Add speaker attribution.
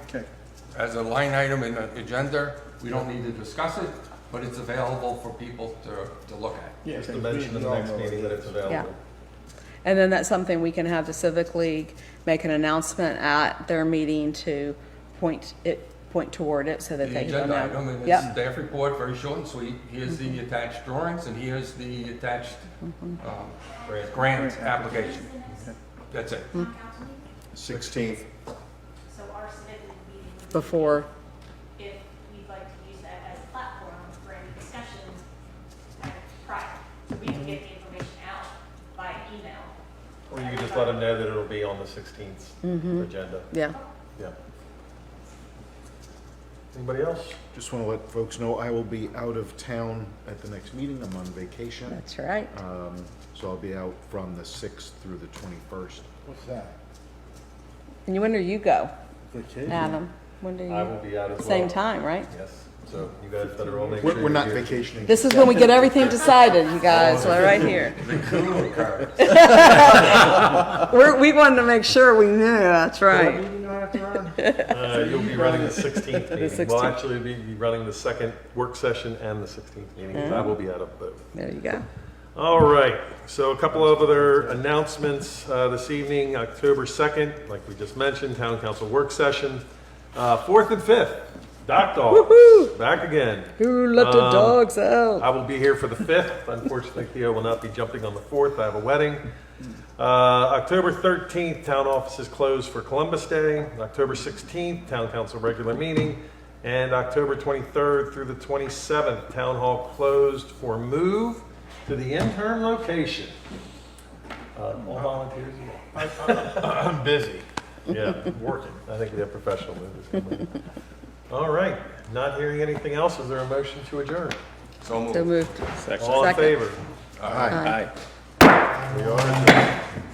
Speaker 1: Okay,
Speaker 2: as a line item in the agenda. We don't need to discuss it, but it's available for people to, to look at.
Speaker 1: yeah,
Speaker 3: Just
Speaker 1: okay,
Speaker 3: to mention
Speaker 1: we-
Speaker 3: at the
Speaker 1: we all
Speaker 3: next
Speaker 1: know what
Speaker 3: meeting
Speaker 1: it
Speaker 3: that
Speaker 1: is.
Speaker 3: it's available.
Speaker 4: And then that's something we can have the Civic League make an announcement at their meeting to point it, point toward it so that
Speaker 2: The
Speaker 4: they can
Speaker 2: agenda
Speaker 4: know.
Speaker 2: item and it's
Speaker 4: Yep, Mm-hmm.
Speaker 2: staff report, very short and sweet. Here's the attached drawings and here's the attached, um,
Speaker 3: Grant.
Speaker 2: grant application. That's it.
Speaker 3: Sixteenth.
Speaker 5: So our civic league meeting would be
Speaker 4: before,
Speaker 5: if we'd like to use that as a platform for any discussions like, prior. So we can get the information out by email.
Speaker 3: Or you could just let them know that it'll be on the
Speaker 4: Mm-hmm.
Speaker 3: 16th agenda.
Speaker 4: yeah.
Speaker 3: Yeah. Anybody else?
Speaker 6: Just want to let folks know I will be out of town at the next meeting. I'm on vacation.
Speaker 4: That's right.
Speaker 6: Um, so I'll be out from the 6th through the 21st.
Speaker 1: What's that?
Speaker 4: And when do you go,
Speaker 1: Vacation?
Speaker 4: Adam? When do you?
Speaker 3: I will be out as well.
Speaker 4: Same time, right?
Speaker 3: Yes, so you guys better all make sure.
Speaker 6: We're, we're
Speaker 3: you're
Speaker 6: not
Speaker 3: here.
Speaker 6: vacationing.
Speaker 4: This is when we get everything decided,
Speaker 3: Oh.
Speaker 4: you guys, like, right here. We're, we wanted to make sure we knew, that's
Speaker 1: What
Speaker 4: right.
Speaker 1: meeting do I have to run?
Speaker 3: Uh, You'll be running the 16th meeting. Well,
Speaker 4: 16th.
Speaker 3: actually, you'll be be running the second work session and the 16th meeting, 'cause I will be out of both.
Speaker 4: There you go.
Speaker 3: All right, so a couple of other announcements uh, this evening, October 2nd, like we just mentioned, Town Council Work Session. Uh, 4th and 5th, Doc Dogs,
Speaker 4: Woohoo!
Speaker 3: back again.
Speaker 4: Who let the
Speaker 3: Um,
Speaker 4: dogs out?
Speaker 3: I will be here for the 5th. Unfortunately, Theo will not be jumping on the 4th. I have a wedding. Uh, October 13th, town office is closed for Columbus Day. October 16th, town council regular meeting. And October 23rd through the 27th, town hall closed for move to the interim location. Uh, All volunteers?
Speaker 7: I'm busy.
Speaker 3: Yeah, working. I think we have professional movers coming. All right, not hearing anything else, is there a motion to adjourn?
Speaker 2: So moved.
Speaker 4: So moved.
Speaker 3: All in
Speaker 4: Second.
Speaker 3: favor?
Speaker 6: Aye.
Speaker 7: Aye.
Speaker 3: We are